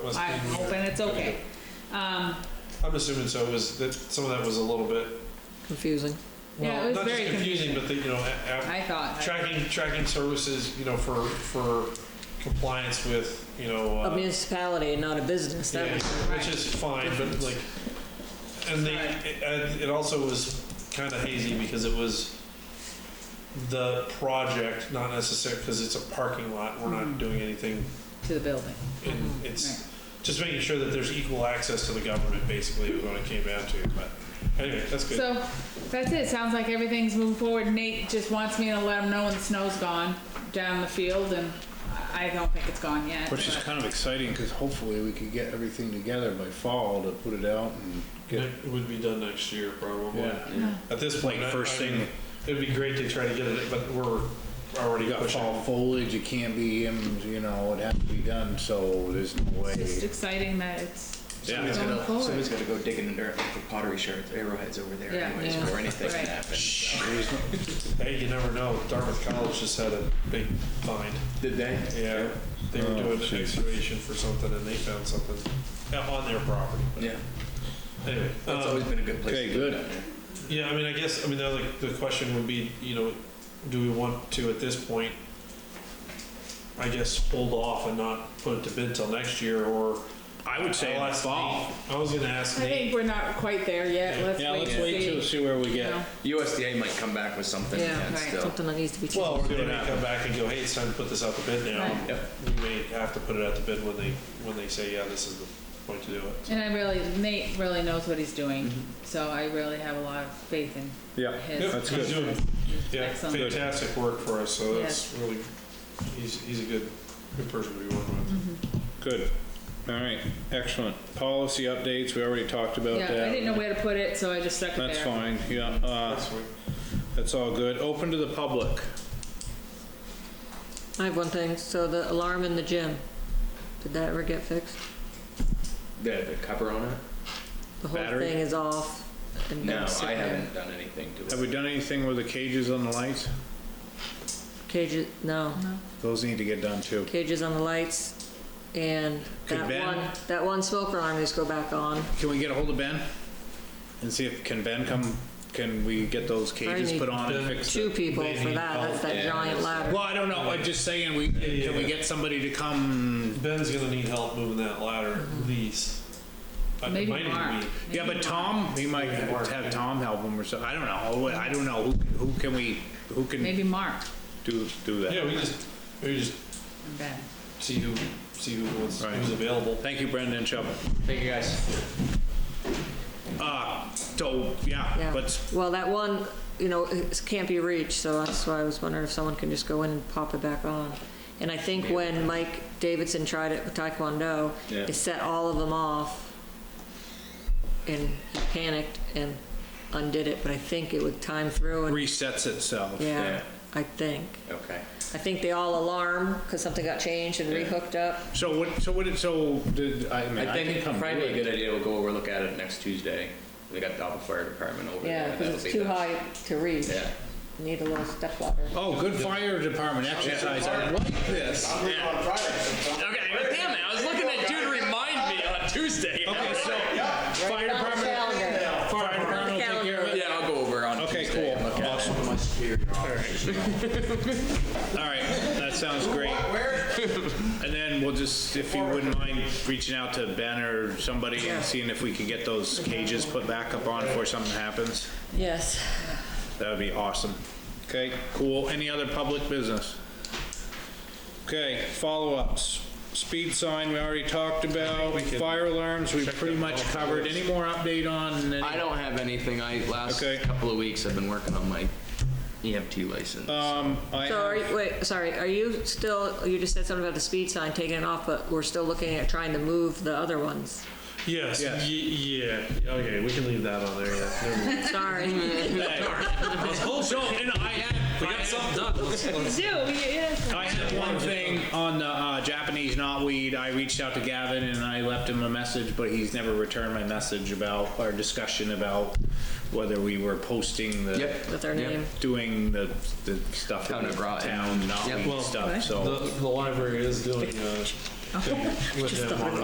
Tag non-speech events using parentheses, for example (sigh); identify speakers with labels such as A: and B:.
A: was
B: I'm
A: being-
B: hoping it's okay. Um,
A: I'm assuming so, was that, some of that was a little bit,
C: confusing.
B: yeah, it
A: well,
B: was
A: not just
B: very
A: confusing,
B: confusing.
A: but the, you know, a- a-
B: I thought,
A: tracking, tracking services, you know, for, for compliance with, you know.
C: A
A: uh,
C: municipality and not a business, that
A: Yeah,
C: was,
A: which is fine, but like, and they, it- and it also was kind of hazy because it was the project, not necessarily, because it's a parking lot, we're
B: Hmm.
A: not doing anything,
B: to the building.
A: and it's just making sure that there's equal access to the government, basically, is what it came down to, but anyway, that's good.
B: So, that's it, sounds like everything's moving forward. Nate just wants me to let him know when the snow's gone down the field, and I I don't think it's gone yet.
D: Which is
B: but-
D: kind of exciting because hopefully we could get everything together by fall to put it out and get,
A: It would be done next year, probably.
D: yeah.
A: At this
D: Like
A: point, I-
D: first
A: I
D: thing-
A: mean, It'd be great to try to get it, but we're already
D: You got
A: pushing.
D: fall foliage, it can't be, in, you know, it has to be done, so there's no way.
B: It's just exciting that it's
D: Yeah.
B: going
E: Somebody's gotta-
B: forward.
E: Somebody's gotta go digging in the dirt for pottery shards, arrowheads over there
B: Yeah.
E: anyways,
C: Yeah.
E: before anything
B: Right.
E: can happen.
D: there's no-
A: Hey, you never know, Dartmouth College just had a big find.
E: Did they?
A: Yeah, they were
D: Oh,
A: doing an
D: jeez.
A: excavation for something and they found something on their property. but
E: Yeah,
A: Anyway,
E: that's
A: um,
E: always been a good place.
D: okay,
E: to do
D: good.
E: it down there.
A: yeah, I mean, I guess, I mean, the, other the question would be, you know, do we want to at this point, I guess, hold off and not put it to bid till next year or?
D: I would say
A: I'll
D: in the
A: ask
D: fall.
A: Nate. I was gonna
B: I
A: ask
B: think
A: Nate.
B: we're not quite there yet, let's wait
D: Yeah, let's
B: and
D: wait till,
B: see,
D: see where we
B: you
D: get.
B: know.
E: USDA might come back with something
C: yeah,
E: again
B: right.
E: still.
C: something that needs to be changed.
A: Well, we're
D: what
A: gonna come back and go, hey, it's time to put this out to bid now.
B: Right.
E: Yep.
A: We may have to put it out to bid when they, when they say, yeah, this is the point to do it.
B: And I really, Nate really knows what he's doing, so I really have a lot of faith in
D: Yeah,
B: his.
D: Mm-hmm. that's
A: he's
D: good.
A: doing- Yeah,
B: Excellent. Good.
A: fantastic work for us, so that's really, he's, he's a good, good person to be working
B: Mm-hmm.
A: with.
D: Good. All right, excellent. Policy updates, we already talked about
B: Yeah, I
D: that.
B: didn't know where to put it, so I just stuck it there.
D: That's fine, yeah, uh,
A: That's sweet.
D: that's all good. Open to the public.
C: I have one thing, so the alarm in the gym, did that ever get fixed?
E: The, the cover on it?
C: The whole
D: Battery?
C: thing is off. and
E: No,
C: don't sit
E: I
C: there.
E: haven't done anything to it.
D: Have we done anything with the cages on the lights?
C: Cages, no,
D: Those need to get done too.
C: cages on the lights, and
D: Could
C: that
D: Ben-
C: one, that one smoke alarm needs to go back on.
D: Can we get a hold of Ben? And see if, can Ben come, can we get those cages
C: need
D: put on and
A: Ben.
D: fix
C: Two
D: it?
C: people
A: They
C: for
A: need
C: that, that's
A: help.
C: that
E: Yeah,
C: giant
E: that's-
C: ladder.
D: Well, I don't know, I'm just saying, we,
A: Yeah,
D: can we
A: yeah.
D: get somebody to come?
A: Ben's gonna need help moving that ladder, at least. Uh, it
B: Mm-hmm. Maybe
A: might even
B: Mark.
A: be-
D: Yeah, but Tom, we might have Tom help him or something, I don't know, I don't know, who, who can we, who can
B: Maybe Mark
D: do, do that?
A: Yeah, we just, we just
B: and Ben.
A: see who, see who was,
D: Right.
A: who's available.
D: Thank you, Brendan Chubb.
E: Thank you, guys.
D: Uh, so, yeah,
C: Yeah.
D: let's,
C: Well, that one, you know, it can't be reached, so that's why I was wondering if someone can just go in and pop it back on. And I think when Mike Davidson tried it with Taekwondo,
E: Yeah.
C: it set all of them off. And he panicked and undid it, but I think it would time through and,
D: resets itself.
C: yeah,
E: yeah.
C: I think.
E: Okay.
C: I think they all alarm because something got changed and
E: Yeah.
C: rehooked up.
D: So what, so what, did- so did, I mean,
E: I
D: I
E: think
D: can come do
E: probably a
D: it.
E: good idea, we'll go over, look at it next Tuesday. They got the Alpha Fire Department over there.
C: Yeah,
E: and that'll
C: because
E: be
C: it's too
E: the-
C: high to reach.
E: Yeah.
C: Need a little step ladder.
D: Oh, good fire department exercise, I like this.
F: Okay, but damn it, I was looking at you to remind me on Tuesday.
D: Okay, so, fire
C: On the
D: department,
C: calendar.
D: fire department will take care of it.
E: Yeah, I'll go over on
D: Okay,
E: Tuesday.
D: cool.
E: and look at it.
D: All right, (laughs) that sounds great. And then we'll just, if you wouldn't mind reaching out to Ben or somebody and seeing if we could get those cages put back up on before something happens,
C: Yes.
D: that would be awesome. Okay, cool. Any other public business? Okay, follow-ups. Speed sign, we already talked about. Fire alarms, we pretty much covered. Any more update on? any-
E: I don't have anything. I last
D: Okay.
E: couple of weeks I've been working on my EMT license.
D: Um, I
C: So are
D: have,
C: you, wait, sorry, are you still, you just said something about the speed sign taking it off, but we're still looking at trying to move the other ones?
A: Yes,
D: Yes.
A: y- yeah, okay, we can leave that on there, yeah. Never mind.
C: Sorry.
D: so, and I had, I had-
F: done. Let's- let's-
B: Do, yes.
D: I had one thing on the uh, Japanese knotweed. I reached out to Gavin and I left him a message, but he's never returned my message about our discussion about whether we were posting the
E: Yep.
C: With our
E: Yep.
C: name.
D: doing the, the stuff
E: Town
D: in
E: of
D: the
E: Groton.
D: town knotweed
E: Yep.
D: stuff. So
B: (laughs)
A: The, the library is doing, uh, thing with them on